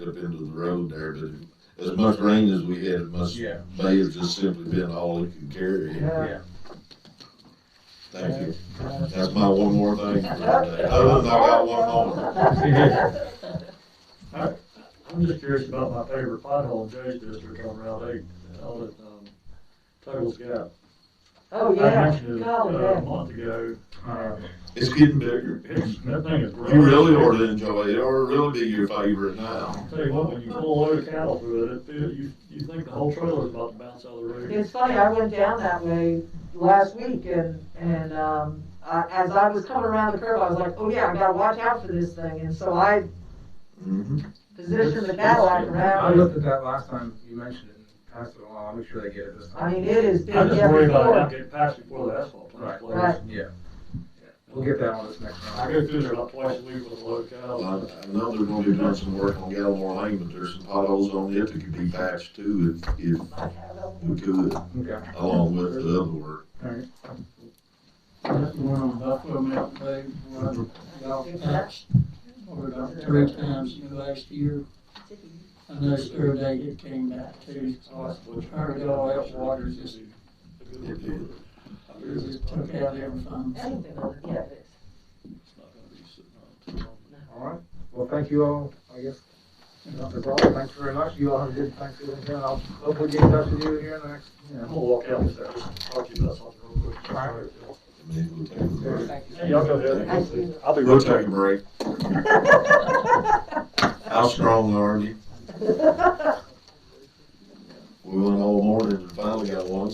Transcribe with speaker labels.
Speaker 1: up into the road there, but as much rain as we had, it must, may
Speaker 2: Yeah.
Speaker 1: have just simply been all it could carry.
Speaker 2: Yeah.
Speaker 1: Thank you. That's my one more thing. for today. Other than I got one more.
Speaker 3: I'm just curious about my favorite pothole in Jay's district on Route eight, all that, um, Tuggles Gap.
Speaker 4: Oh,
Speaker 3: I
Speaker 4: yeah,
Speaker 3: mentioned it
Speaker 4: golly,
Speaker 3: uh, a
Speaker 4: yeah.
Speaker 3: month ago, uh,
Speaker 1: It's getting bigger.
Speaker 3: it's, that thing is growing.
Speaker 1: You really ought to enjoy it, or really be your favorite now.
Speaker 3: Tell you what, when you pull a load of cattle through it, it feels, you, you think the whole trailer's about to bounce out of the road.
Speaker 4: It's funny, I went down that way last week and, and, um, I, as I was coming around the curve, I was like, oh yeah, I gotta watch out for this thing, and so I
Speaker 3: Mm-hmm.
Speaker 1: Mhm.
Speaker 4: positioned the Cadillac
Speaker 2: I
Speaker 4: around.
Speaker 2: looked at that last time you mentioned it and passed it along. I'll make sure they get it this time.
Speaker 4: I mean, it is big,
Speaker 3: I just
Speaker 4: yeah,
Speaker 3: worry about it not
Speaker 4: before,
Speaker 3: getting past before the asphalt plant
Speaker 2: Right.
Speaker 3: closes.
Speaker 2: Yeah. We'll get that on this next
Speaker 3: I
Speaker 2: round.
Speaker 3: go through there about twice a week with a load of
Speaker 1: Well,
Speaker 3: cattle.
Speaker 1: I I know they're gonna be doing some work on Gallimore Lane, but there's some potholes on it that could be patched too, if, if we could,
Speaker 2: Okay.
Speaker 1: along with the other work.
Speaker 5: That's the one on Buffalo Mountain Day, one about, or about three times in the last year. I noticed their data came back too,
Speaker 3: Oh,
Speaker 5: so I heard all that water just,
Speaker 1: It did.
Speaker 5: it just took out everything.
Speaker 2: All right. Well, thank you all. I guess that's all. Thanks very much. You all have a good Thanksgiving. and I'll hopefully get in touch with you here in the next, you
Speaker 3: I'm
Speaker 2: know.
Speaker 3: gonna walk out with that, just talk to you about something real quick.
Speaker 2: All right.
Speaker 1: I mean, we'll take a break.
Speaker 3: Hey, y'all go ahead.
Speaker 4: Thank
Speaker 3: I'll be
Speaker 1: We'll take a break. How strong are you? We went all morning and finally got one